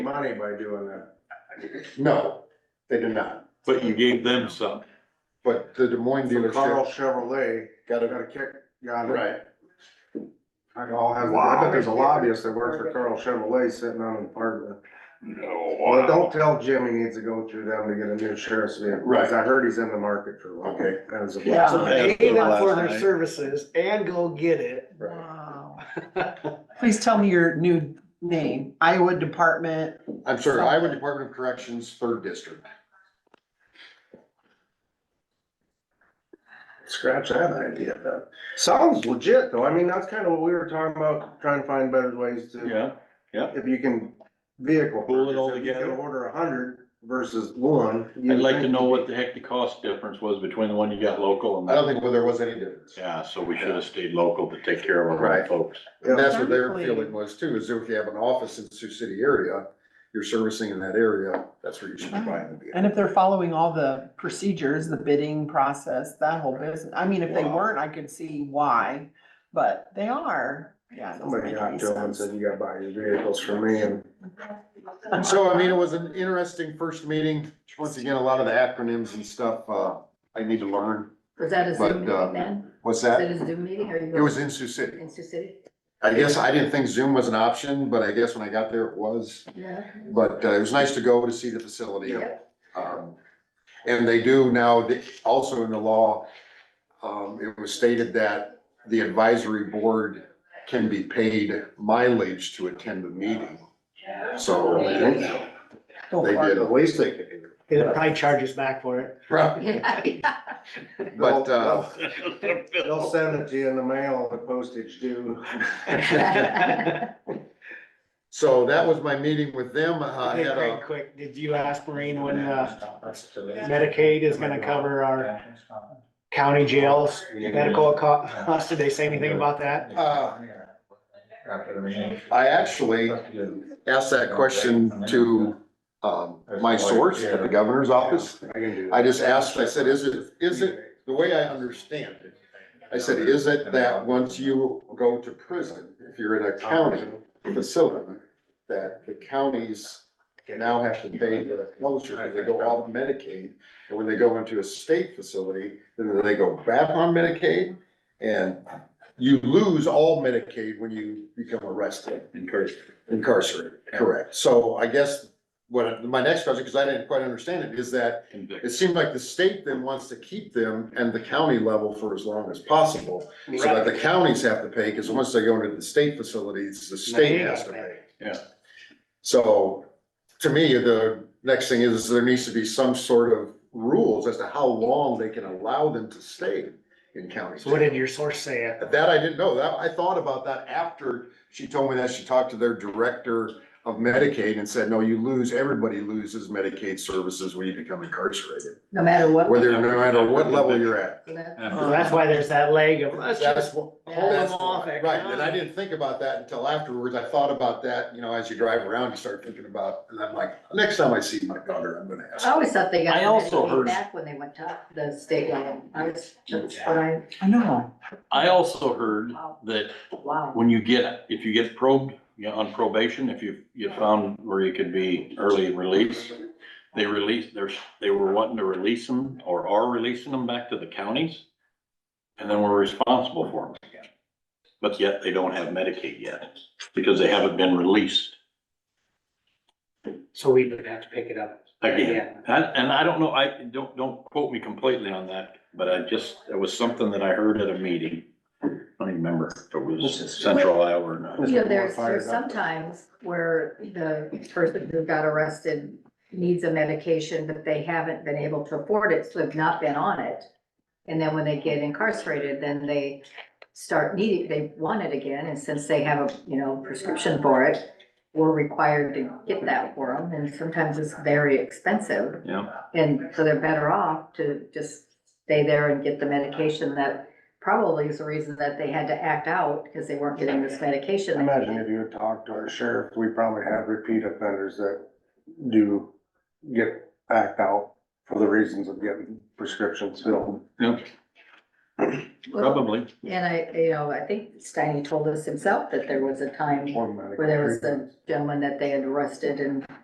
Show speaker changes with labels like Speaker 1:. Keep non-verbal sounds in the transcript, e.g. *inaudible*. Speaker 1: money by doing that.
Speaker 2: No, they did not,
Speaker 3: But you gave them some.
Speaker 2: but the Des Moines
Speaker 1: So Carl
Speaker 2: dealership
Speaker 1: Chevrolet
Speaker 2: got
Speaker 1: got
Speaker 2: a,
Speaker 1: a kick, got it.
Speaker 2: right,
Speaker 1: I all has, I bet there's a lobbyist that works for Carl Chevrolet sitting on the park.
Speaker 3: No.
Speaker 1: Well, don't tell Jim he needs to go through them to get a new sheriff's vehicle, because
Speaker 2: Right.
Speaker 1: I heard he's in the market for one.
Speaker 2: Okay.
Speaker 1: That was a
Speaker 4: Yeah,
Speaker 1: blessing.
Speaker 3: I
Speaker 4: pay
Speaker 3: asked her
Speaker 4: them for
Speaker 3: last
Speaker 4: their
Speaker 3: night.
Speaker 4: services and go get it.
Speaker 2: right.
Speaker 5: Please tell me your new name, Iowa Department.
Speaker 2: I'm sorry, Iowa Department of Corrections, third district.
Speaker 1: Scratch that idea, though. Sounds legit, though. I mean, that's kind of what we were talking about, trying to find better ways to.
Speaker 3: Yeah,
Speaker 1: If you can vehicle.
Speaker 3: Pull it all
Speaker 1: purchase, if you can
Speaker 3: together.
Speaker 1: Order a hundred versus one.
Speaker 3: I'd like to know what the heck the cost difference was between the one you got local and.
Speaker 2: I don't think there was any difference.
Speaker 3: Yeah, so we should have stayed local to take care of our
Speaker 2: Right.
Speaker 3: own folks.
Speaker 2: And that's what their feeling was too, is if you have an office in Sioux City area, you're servicing in that area, that's where you should be buying the vehicle.
Speaker 5: And if they're following all the procedures, the bidding process, that whole business, I mean, if they
Speaker 3: Wow.
Speaker 5: weren't, I could see why, but they are, yeah. it doesn't
Speaker 1: Somebody
Speaker 5: make
Speaker 1: got
Speaker 5: any
Speaker 1: to him and
Speaker 5: sense.
Speaker 1: said, you gotta buy your vehicles from me and.
Speaker 2: So I mean, it was an interesting first meeting, once again, a lot of the acronyms and stuff, uh, I need to learn,
Speaker 6: Was that a
Speaker 2: But,
Speaker 6: Zoom
Speaker 2: um,
Speaker 6: meeting then?
Speaker 2: what's
Speaker 6: Was it
Speaker 2: that?
Speaker 6: a Zoom meeting or you?
Speaker 2: It was in Sioux City,
Speaker 6: In Sioux City?
Speaker 2: I guess I didn't think Zoom was an option, but I guess when I got there it was,
Speaker 6: Yeah.
Speaker 2: but uh, it was nice to go to see the facility.
Speaker 6: Yeah.
Speaker 2: Um, And they do now, also in the law, um, it was stated that the advisory board can be paid mileage to attend the meeting. So they
Speaker 5: Go for it.
Speaker 2: did,
Speaker 1: least they could do.
Speaker 4: It'll probably charge us back for it.
Speaker 2: but, uh,
Speaker 1: They'll send it to you in the mail, the postage
Speaker 2: *laughs*
Speaker 1: due.
Speaker 2: so that was my meeting with them. I
Speaker 4: Hey,
Speaker 2: had
Speaker 4: Craig,
Speaker 2: a,
Speaker 4: quick, did you ask Maureen when, uh, Medicaid is gonna cover our county jails, medical co- costs? Did they say anything about that?
Speaker 2: Uh,
Speaker 7: After the meeting.
Speaker 2: I actually asked that question to, um, my source at the governor's office.
Speaker 1: I can do that.
Speaker 2: I just asked, I said, is it, is it, the way I understand it, I said, is it that once you go to prison, if you're in a county facility, that the counties now have to pay the closure, because they go off Medicaid, and when they go into a state facility, then they go back on Medicaid, and you lose all Medicaid when you become arrested, incarcerated, correct? So I guess what, my next question, because I didn't quite understand it, is that it seemed like the state then wants to keep them and the county level for as long as possible. So that the counties have to pay, because once they go into the state facilities, the state has to pay.
Speaker 3: Yeah.
Speaker 2: So, to me, the next thing is, there needs to be some sort of rules as to how long they can allow them to stay in county.
Speaker 4: So what did
Speaker 2: jail.
Speaker 4: your source say?
Speaker 2: That I didn't know, that, I thought about that after she told me that, she talked to their director of Medicaid and said, no, you lose, everybody loses Medicaid services when you become incarcerated.
Speaker 6: *laughs* No matter what.
Speaker 2: Whether, no matter what level you're at.
Speaker 4: So that's why there's that leg of, let's just
Speaker 2: That's what-
Speaker 4: hold them
Speaker 2: that's
Speaker 4: off.
Speaker 2: what-
Speaker 4: at
Speaker 2: Right, and I
Speaker 4: county.
Speaker 2: didn't think about that until afterwards. I thought about that, you know, as you drive around, you start thinking about, and I'm like, next time I see my daughter, I'm gonna
Speaker 6: I
Speaker 2: ask.
Speaker 6: always thought they got.
Speaker 3: I also
Speaker 6: Medicaid
Speaker 3: heard-
Speaker 6: Back when they went to the state level. I was, that's what I,
Speaker 5: I know,
Speaker 3: I also heard that
Speaker 6: wow.
Speaker 3: when you get, if you get probed, you know, on probation, if you, you found where you could be early release, they release, there's, they were wanting to release them or are releasing them back to the counties. And then we're responsible for them again. But yet they don't have Medicaid yet because they haven't been released
Speaker 4: so we would have to pick it up.
Speaker 3: again. And, and I don't know, I, don't, don't quote me completely on that, but I just, it was something that I heard at a meeting. I don't even remember if it was Central Iowa or not.
Speaker 6: You know, there's, there's sometimes where the person who got arrested needs a medication, but they haven't been able to afford it, so have not been on it. And then when they get incarcerated, then they start needing, they want it again, and since they have a, you know, prescription for it, we're required to get that for them, and sometimes it's very expensive.
Speaker 3: Yeah.
Speaker 6: And so they're better off to just stay there and get the medication that probably is the reason that they had to act out, because they weren't getting this medication. they
Speaker 1: Imagine
Speaker 6: needed.
Speaker 1: if you had talked to our sheriff, we probably have repeat offenders that do get backed out for the reasons of getting prescriptions filled.
Speaker 6: Well,
Speaker 3: Probably.
Speaker 6: And I, you know, I think Steiny told us himself that there was a time
Speaker 1: One medical
Speaker 6: where there was
Speaker 1: treatment.
Speaker 6: a gentleman that they had arrested and